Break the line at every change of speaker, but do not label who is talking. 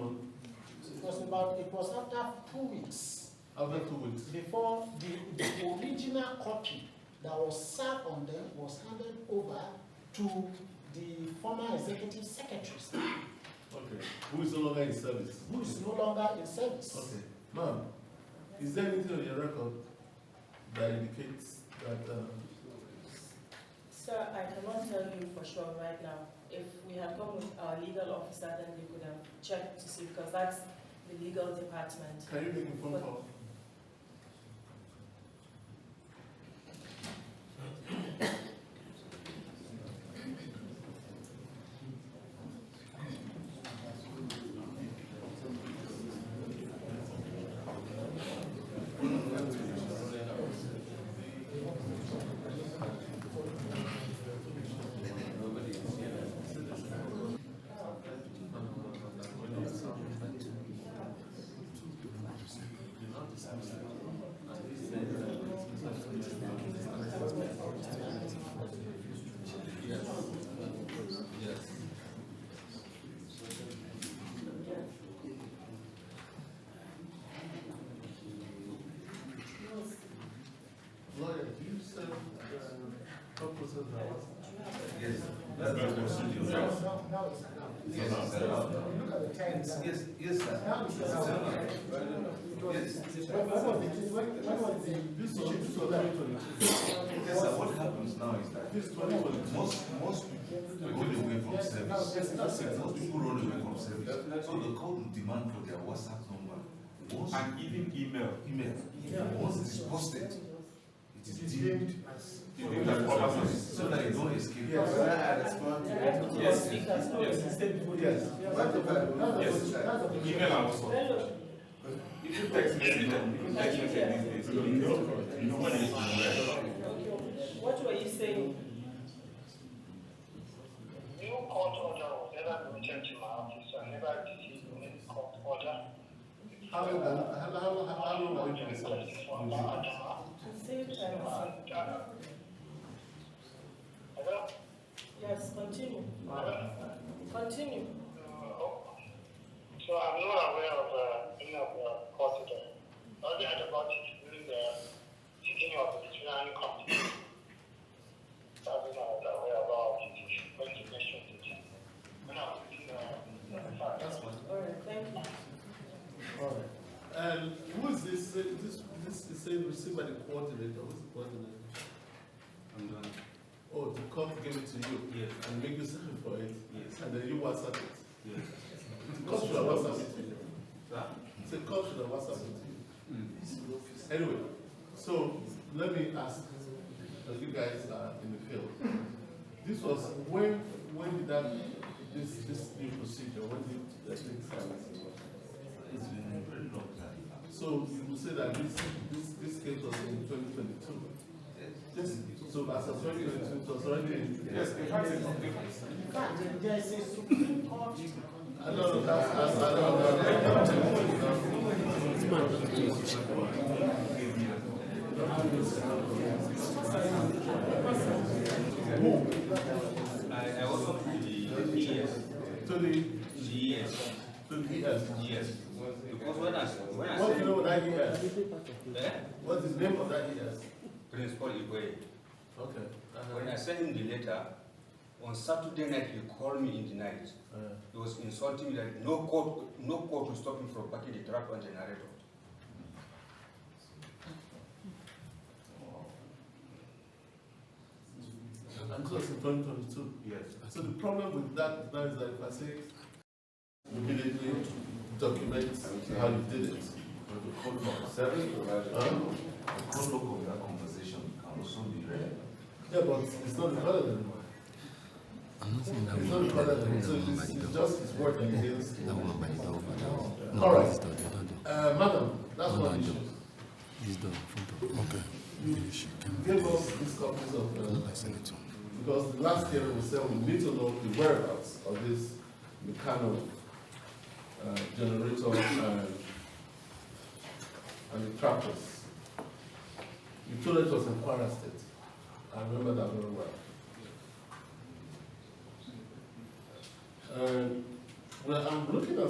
It was about, it was after two weeks
After two weeks,
before the, the original copy that was served on them was handed over to the former executive secretaries
okay, who is no longer in service?
who is no longer in service.
Okay, ma'am, is there anything on your record that indicates that, um,
Sir, I cannot tell you for sure right now. If we had come with our legal officer, then we could have checked to see, because that's the legal department.
can you make a phone call? Lawyer, do you serve, uh, purposes now?
Yes, that's the procedure.
No, no, no, it's allowed.
Yes, sir.
Look at the time now.
Yes, yes,
Now it's allowed.
sir.
It was-
Yes.
When when was it, when, when was the?
This was, this was twenty twenty-two,
Yes, sir, what happens now is that
this twenty twenty-two.
most, most people run away from service. Most people run away from service. So the court will demand for their WhatsApp number. Once
and even email.
email, once it is posted,
It
it is
is
deemed.
deemed as.
deemed as proper service, So that you don't escape.
Yes,
Yes.
Yes.
Email and WhatsApp.
Well,
Even text message, even text message these days. Nobody is aware.
What were you saying?
New court order was never returned to my office, I never received any court order.
How long, how, how, how how long have you been in service?
Request from my Adama.
Same time,
And, uh, Hello?
sir. Yes, continue,
Hello?
continue.
Uh, So I'm not aware of uh, any of the court order. All I heard about it during the sitting of the disciplinary committee. So I was not aware about it, when you mentioned it. When I was in the.
That's fine.
All right, thank you.
Alright, and Um, who is this, uh, this, this is saying received by the coordinator, who's the coordinator?
I'm done.
Oh, to come give it to you?
Yes.
And make you sign for it?
Yes.
And then you WhatsApp it?
Yes.
The cop should have WhatsApp it to you.
Sir?
The cop should have WhatsApp it to you. Anyway, so let me ask, as you guys are in the field, this was, when, when did that, this, this new procedure, when did the thing start?
It's been a very long time.
So you will say that this, this, this case was in twenty twenty-two? Yes. So as of twenty twenty-two, it was already in.
Yes, the fact is, the-
In fact, there- there is a Supreme Court.
I don't know, that's, that's, I don't know.
I, I also put the GS.
To the,
GS.
to the ES.
GS. Because when I, when I
What do you know
said,
of that E ES?
eh?
What's the name of that ES?
Principal Igwe,
Okay. Uh-huh.
when I sent him the letter, on Saturday night, he called me in the night.
Uh,
He was insulting me that no court, no court will stop him from parking the tractor and generator.
And it was in twenty twenty-two.
Yes.
So the problem with that now is that if I say immediately document how you did it.
But the code of service provider,
Huh?
the code book of that conversation can also be read.
Yeah, but it's not recorded anymore. It's not recorded anymore, so it's, it's just his word against. Alright, uh, madam, that's one issue.
Okay.
You Give us these copies of, uh,
I send it to him.
because the last year we said we need to know the whereabouts of this mechanical uh, generator and, and the tractors. You told us it was in Kwara State. I remember that very well. And, well, I'm looking at